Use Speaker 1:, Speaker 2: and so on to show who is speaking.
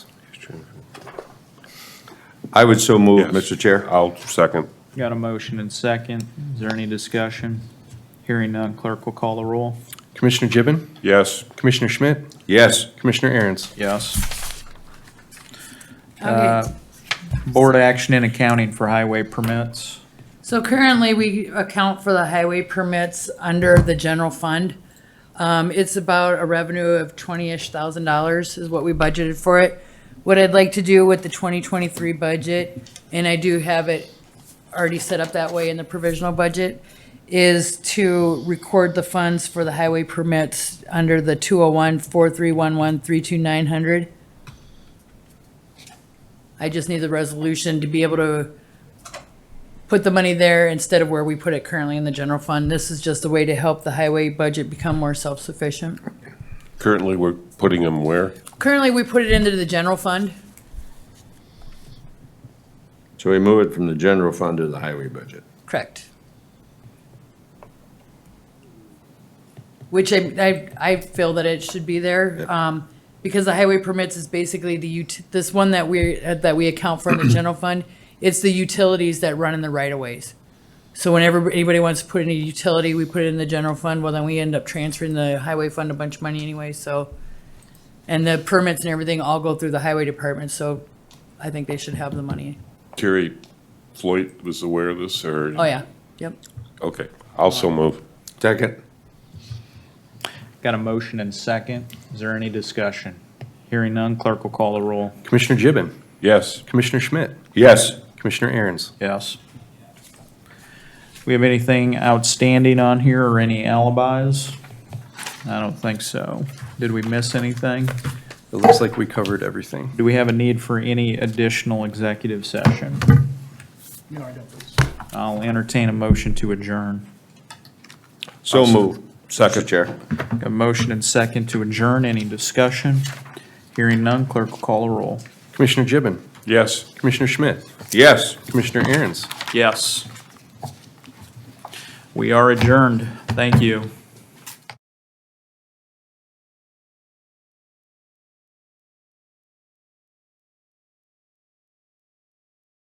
Speaker 1: I would so move,
Speaker 2: Yes.
Speaker 1: Mr. Chair.
Speaker 2: I'll second.
Speaker 3: Got a motion and second. Is there any discussion? Hearing none, clerk will call the roll.
Speaker 4: Commissioner Gibbon,
Speaker 2: Yes,
Speaker 4: Commissioner Schmidt,
Speaker 1: Yes,
Speaker 4: Commissioner Aaron's.
Speaker 3: Yes. Uh,
Speaker 5: Okay,
Speaker 3: Board action in accounting for highway permits.
Speaker 5: so currently we account for the highway permits under the general fund. Um, it's about a revenue of twenty-ish thousand dollars is what we budgeted for it. What I'd like to do with the twenty twenty-three budget, and I do have it already set up that way in the provisional budget, is to record the funds for the highway permits under the two oh one, four three one one, three two nine hundred. I just need the resolution to be able to put the money there instead of where we put it currently in the general fund. This is just a way to help the highway budget become more self-sufficient.
Speaker 2: currently we're putting them where?
Speaker 5: Currently, we put it into the general fund.
Speaker 1: so we move it from the general fund to the highway budget.
Speaker 5: Correct. Which I, I, I feel that it should be there, um, because the highway permits is basically the ut, this one that we, uh, that we account for in the general fund, it's the utilities that run in the right of ways. So whenever anybody wants to put in a utility, we put it in the general fund, well, then we end up transferring the highway fund a bunch of money anyway, so. And the permits and everything all go through the highway department, so I think they should have the money.
Speaker 2: Terry Floyd was aware of this or?
Speaker 5: Oh, yeah, yep.
Speaker 2: Okay, I'll so move.
Speaker 1: Second?
Speaker 3: Got a motion and second. Is there any discussion? Hearing none, clerk will call the roll.
Speaker 4: Commissioner Gibbon,
Speaker 2: Yes,
Speaker 4: Commissioner Schmidt,
Speaker 1: Yes.
Speaker 4: Commissioner Aaron's.
Speaker 3: Yes. We have anything outstanding on here or any alibis? I don't think so. Did we miss anything?
Speaker 4: It looks like we covered everything.
Speaker 3: Do we have a need for any additional executive session?
Speaker 6: No, I don't think so.
Speaker 3: I'll entertain a motion to adjourn.
Speaker 1: So move, Second, Chair.
Speaker 3: A motion and second to adjourn. Any discussion? Hearing none, clerk will call a roll.
Speaker 4: Commissioner Gibbon,
Speaker 2: yes.
Speaker 4: Commissioner Schmidt,
Speaker 1: Yes.
Speaker 4: Commissioner Aaron's.
Speaker 3: Yes. We are adjourned. Thank you.